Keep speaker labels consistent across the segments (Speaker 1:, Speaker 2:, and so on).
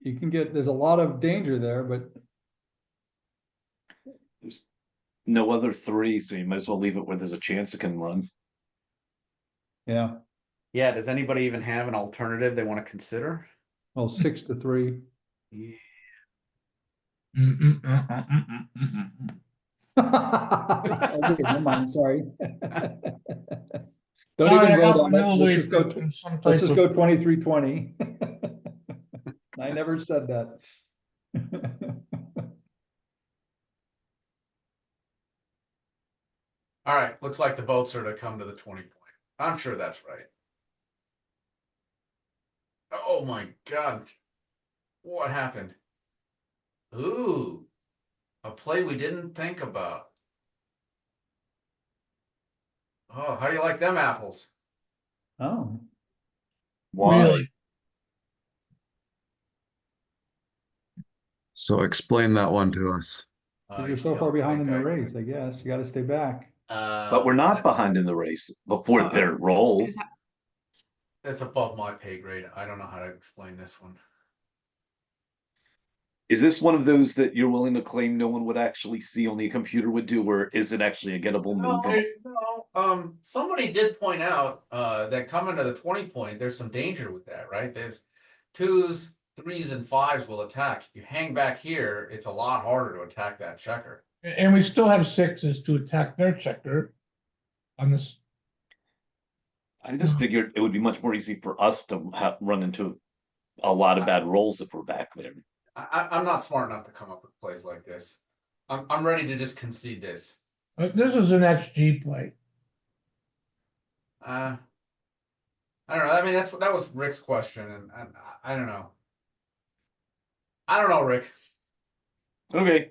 Speaker 1: you can get, there's a lot of danger there, but
Speaker 2: No other three, so you might as well leave it where there's a chance it can run.
Speaker 1: yeah,
Speaker 3: Yeah, does anybody even have an alternative they want to consider?
Speaker 1: well, six to three. Okay, never mind, Sorry. Don't
Speaker 4: Sorry, I
Speaker 1: even
Speaker 4: got
Speaker 1: vote on
Speaker 4: my
Speaker 1: it.
Speaker 4: middle
Speaker 1: Let's
Speaker 4: way
Speaker 1: just go,
Speaker 4: from some
Speaker 1: let's
Speaker 4: type
Speaker 1: just
Speaker 4: of-
Speaker 1: go twenty-three, twenty. I never said that.
Speaker 3: All right, looks like the votes are to come to the twenty point. I'm sure that's right. Oh my god. What happened? Ooh. A play we didn't think about. Oh, how do you like them apples?
Speaker 1: Oh,
Speaker 2: Why?
Speaker 4: Really?
Speaker 5: So explain that one to us.
Speaker 3: Uh,
Speaker 1: 'cause
Speaker 3: you
Speaker 1: you're so far
Speaker 3: don't
Speaker 1: behind in
Speaker 3: think
Speaker 1: the
Speaker 3: I-
Speaker 1: race, I guess. You gotta stay back.
Speaker 3: Uh,
Speaker 2: But we're not behind in the race before their roll.
Speaker 3: That's above my pay grade. I don't know how to explain this one.
Speaker 2: Is this one of those that you're willing to claim no one would actually see, only a computer would do, or is it actually a gettable
Speaker 3: No,
Speaker 2: move?
Speaker 3: no, um, somebody did point out, uh, that coming to the twenty point, there's some danger with that, right? There's twos, threes and fives will attack. If You hang back here, it's a lot harder to attack that checker.
Speaker 4: And we still have sixes to attack their checker on this.
Speaker 2: I just figured it would be much more easy for us to ha run into a lot of bad rolls if we're back there.
Speaker 3: I, I, I'm not smart enough to come up with plays like this. I'm, I'm ready to just concede this.
Speaker 4: uh, This is an XG play.
Speaker 3: Uh, I don't know. I mean, that's, that was Rick's question and, and I- I don't know. I don't know, Rick.
Speaker 2: Okay,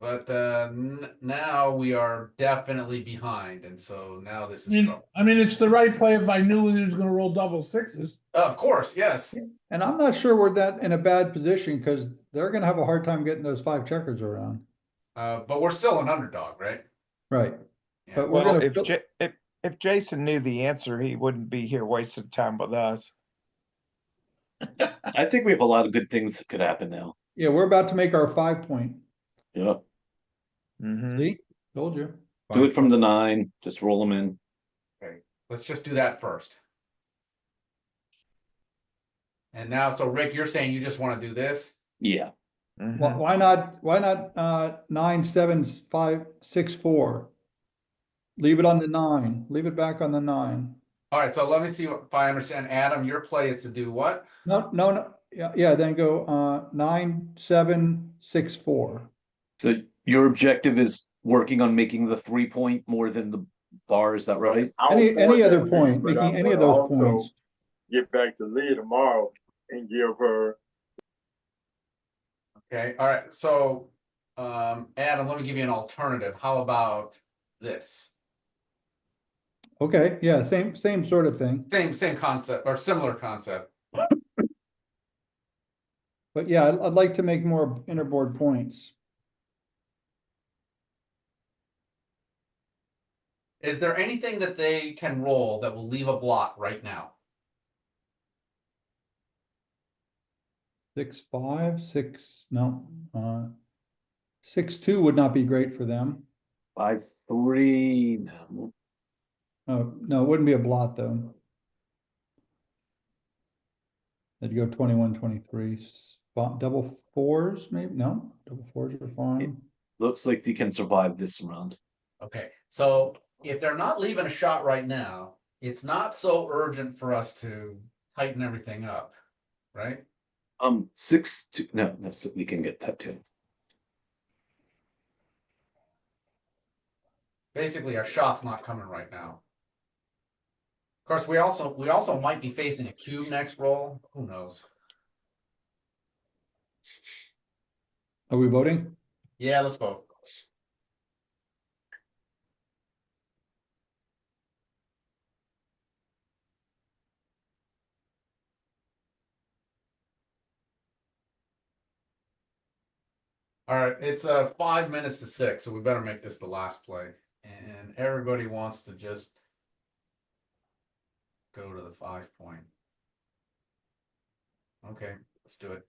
Speaker 3: But uh, n- now we are definitely behind, and so now this
Speaker 4: I
Speaker 3: is
Speaker 1: Mm.
Speaker 4: mean,
Speaker 3: trouble.
Speaker 4: I mean, it's the right play if I knew he was gonna roll double sixes.
Speaker 3: Uh, Of course, yes.
Speaker 1: And I'm not sure we're that in a bad position, cause they're gonna have a hard time getting those five checkers around.
Speaker 3: Uh, but we're still an underdog, right?
Speaker 1: Right,
Speaker 3: Yeah.
Speaker 1: but we're
Speaker 6: Well,
Speaker 1: gonna,
Speaker 6: if,
Speaker 1: fill-
Speaker 6: Ja- if, if Jason knew the answer, he wouldn't be here wasting time with us.
Speaker 2: I think we have a lot of good things that could happen now.
Speaker 1: yeah, we're about to make our five point.
Speaker 2: Yeah,
Speaker 6: Mhm.
Speaker 1: See, told you.
Speaker 2: do it from the nine, just roll them in.
Speaker 3: Let's just do that first. And now, so Rick, you're saying you just want to do this?
Speaker 2: Yeah,
Speaker 1: Why,
Speaker 6: Mhm.
Speaker 1: why not, why not, uh, nine, seven, s- five, six, four? Leave it on the nine, leave it back on the nine.
Speaker 3: All right, so let me see what- if I understand. Adam, your play is to do what?
Speaker 1: No, no, no, yeah, yeah, then go, uh, nine, seven, six, four.
Speaker 2: so your objective is working on making the three point more than the bar, is that right?
Speaker 1: Any, any other
Speaker 7: Outpoint,
Speaker 1: point,
Speaker 7: but
Speaker 1: making
Speaker 7: I
Speaker 1: any of
Speaker 7: would
Speaker 1: those
Speaker 7: also
Speaker 1: points.
Speaker 7: Get back to Leah tomorrow and give her,
Speaker 3: Okay, all right, so um, Adam, let me give you an alternative. How about this?
Speaker 1: Okay, yeah, same, same sort of thing.
Speaker 3: Same, same concept or similar concept.
Speaker 1: But yeah, I'd, I'd like to make more interboard points.
Speaker 3: Is there anything that they can roll that will leave a block right now?
Speaker 1: Six, five, six, no, uh, six, two would not be great for them.
Speaker 2: Five, three, no.
Speaker 1: Oh, no, it wouldn't be a blot though. They'd go 21, 23, spot, double fours, maybe, no, double fours are fine.
Speaker 2: looks like they can survive this round.
Speaker 3: Okay, so if they're not leaving a shot right now, it's not so urgent for us to tighten everything up, right?
Speaker 2: Um, six, two, no, no, so we can get that too.
Speaker 3: Basically, our shot's not coming right now. Of course, we also, we also might be facing a cube next roll, who knows?
Speaker 1: Are we voting?
Speaker 3: Yeah, let's vote. All right, it's uh five minutes to six, so we better make this the last play. And everybody wants to just go to the five point. Okay, let's do it.